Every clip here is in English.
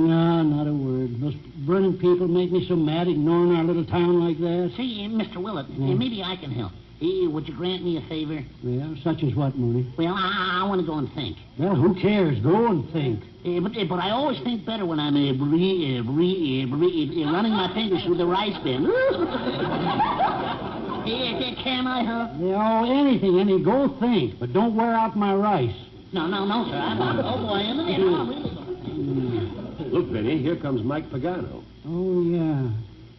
No, not a word. Those Vernon people make me so mad ignoring our little town like that. Say, uh, Mr. Willett, uh, Hmm. maybe I can help. Eh, would you grant me a favor? Well, such as what, Mooney? Well, I, I want to go and think. Well, who cares? Go and think. Eh, but, eh, but I always think better when I'm uh, re, uh, re, uh, re, uh, running my fingers through the rice bin. Eh, eh, can I help? You know, anything, any, go think, but don't wear out my rice. No, no, no, sir. I'm not. Oh, boy, am I? No, I really don't. Look, Benny, here comes Mike Pagano. Oh, yeah.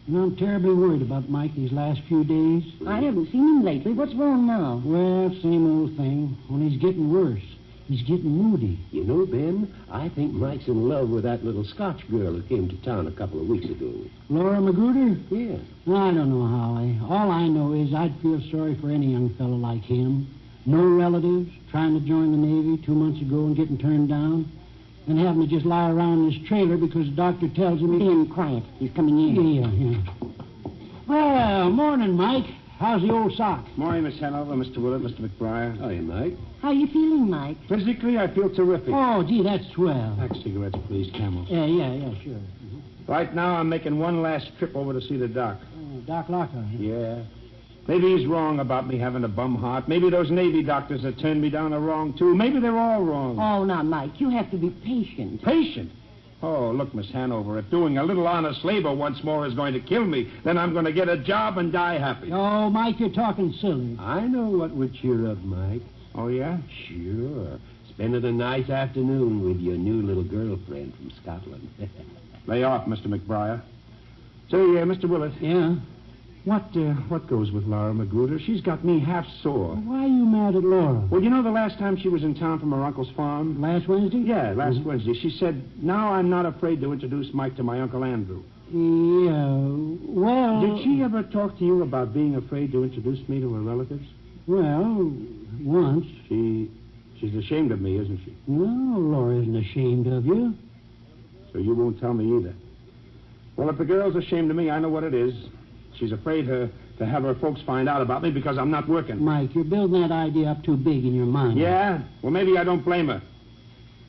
And I'm terribly worried about Mike these last few days. I haven't seen him lately. What's wrong now? Well, same old thing. Only he's getting worse. He's getting moody. You know, Ben, I think Mike's in love with that little Scotch girl who came to town a couple of weeks ago. Laura Magruder? Yeah. I don't know how. I, all I know is I'd feel sorry for any young fellow like him. No relatives, trying to join the Navy two months ago and getting turned down, and having to just lie around in his trailer because the doctor tells him he... Being quiet. He's coming in. Yeah, yeah. Well, morning, Mike. How's the old sock? Morning, Miss Hanover, Mr. Willett, Mr. McBriar. Hiya, Mike. How you feeling, Mike? Physically, I feel terrific. Oh, gee, that's swell. Pack cigarettes, please, Camel. Yeah, yeah, yeah, sure. Right now, I'm making one last trip over to see the doc. Oh, Doc Lockhart. huh? Yeah. Maybe he's wrong about me having a bum heart. Maybe those Navy doctors that turned me down are wrong, too. Maybe they're all wrong. Oh, now, Mike, you have to be patient. Patient. Oh, look, Miss Hanover, if doing a little honest labor once more is going to kill me, then I'm going to get a job and die happy. Oh, Mike, you're talking silly. I know what would cheer up Mike. Oh, yeah? Sure. Spending a nice afternoon with your new little girlfriend from Scotland. Lay off, Mr. McBriar. Say, uh, Mr. Willett, Yeah? what, uh, what goes with Laura Magruder? She's got me half sore. Why are you mad at Laura? Well, you know the last time she was in town from her uncle's farm? Last Wednesday? Yeah, last Wednesday. She said, Now I'm not afraid to introduce Mike to my Uncle Andrew. Yeah. Well. Did she ever talk to you about being afraid to introduce me to her relatives? Well, once. She. She's ashamed of me, isn't she? No, Laura isn't ashamed of you. So you won't tell me either. Well, if the girl's ashamed of me, I know what it is. She's afraid her, to have her folks find out about me because I'm not working. Mike, you're building that idea up too big in your mind. Yeah? Well, maybe I don't blame her.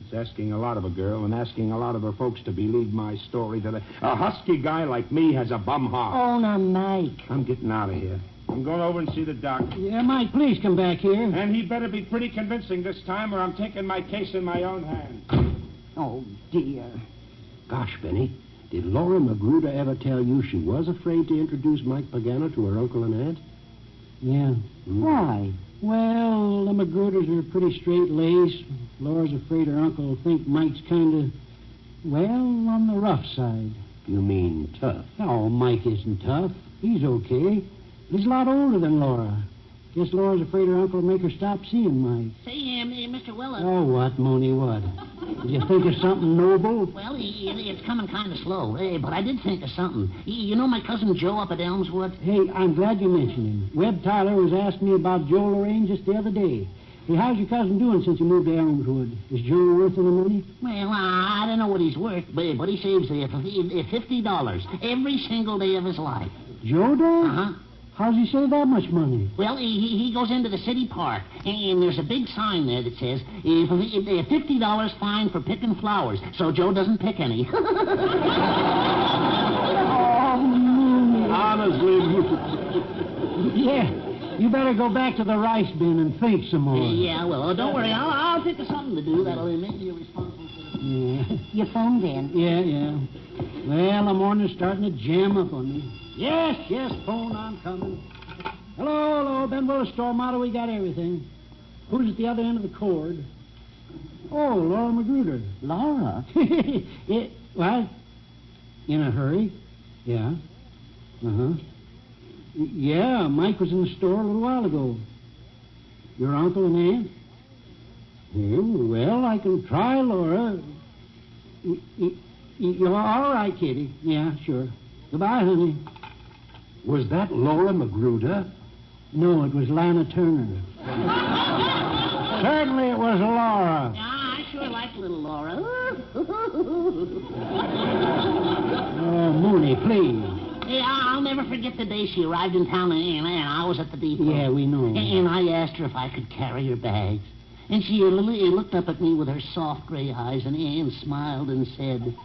It's asking a lot of a girl and asking a lot of her folks to believe my story that a, a husky guy like me has a bum heart. Oh, now, Mike. I'm getting out of here. I'm going over and see the doc. Yeah, Mike, please come back here. And he better be pretty convincing this time, or I'm taking my case in my own hands. Oh, dear. Gosh, Benny, did Laura Magruder ever tell you she was afraid to introduce Mike Pagano to her uncle and aunt? Yeah. Why? Well, the Magruders are pretty straight laced. Laura's afraid her uncle will think Mike's kind of, well, on the rough side. You mean tough. No, Oh, Mike isn't tough. He's okay. He's a lot older than Laura. Guess Laura's afraid her uncle will make her stop seeing Mike. Say, um, eh, Mr. Willett. Oh, what, Mooney, what? Did you think of something noble? Well, eh, eh, it's coming kind of slow, eh, but I did think of something. Eh, You know my cousin Joe up at Elmswood? Hey, I'm glad you mentioned him. Webb Tyler was asking me about Joe Lorraine just the other day. Hey, how's your cousin doing since he moved to Elmwood? Is Joe worth any money? Well, I I don't know what he's worth, but, but he saves eh, fif- eh, fifty dollars every single day of his life. Joe does? Uh huh. How's he save that much money? Well, he, he he goes into the city park, and there's a big sign there that says eh, fif- eh, fifty dollars fine for picking flowers, so Joe doesn't pick any. Honestly, Yeah. You better go back to the rice bin and think some more. yeah, well, oh, don't worry, I'll, I'll think of something to do that'll eh, make you responsible. for the- Yeah, You phoned in. yeah. yeah. Well, the morning's starting to jam up on me. Yes, yes, phone, I'm coming. Hello, hello, Ben Willis, Stormato, we got everything. Who's at the other end of the cord? Oh, Laura Magruder. Laura? it, what? In a hurry? Yeah. Uh huh. Yeah, Mike was in the store a little while ago. Your uncle and aunt? Yeah, well, I can try, Laura. Y- y- y- You're all right, Kitty. Yeah, sure. Goodbye, honey. was that Laura Magruder? No, it was Lana Turner. Certainly it was Laura. Ah, I sure like little Laura. Uh, Oh, Mooney, please. Yeah, I'll never forget the day she arrived in town, and, and I was at the depot. Yeah, we know. And, and I asked her if I could carry her bags. And she l- l- looked up at me with her soft gray eyes and, and smiled and said,